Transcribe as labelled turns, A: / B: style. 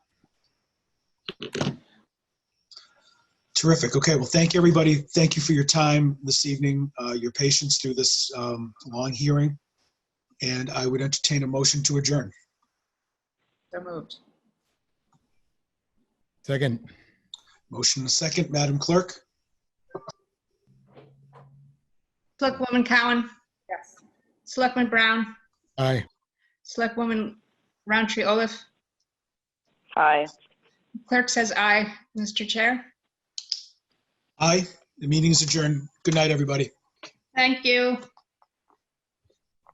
A: Terrific. Okay, well, thank you, everybody. Thank you for your time this evening, uh, your patience through this um, long hearing. And I would entertain a motion to adjourn.
B: So moved.
C: Second,
A: Motion and a second, Madam Clerk?
D: Selectwoman Cowan,
B: Yes.
D: Selectman Brown,
C: aye.
D: Selectwoman Roundtree Olaf.
E: Aye.
D: Clerk says aye, Mr. Chair.
A: Aye, the meeting is adjourned. Good night, everybody.
D: Thank you.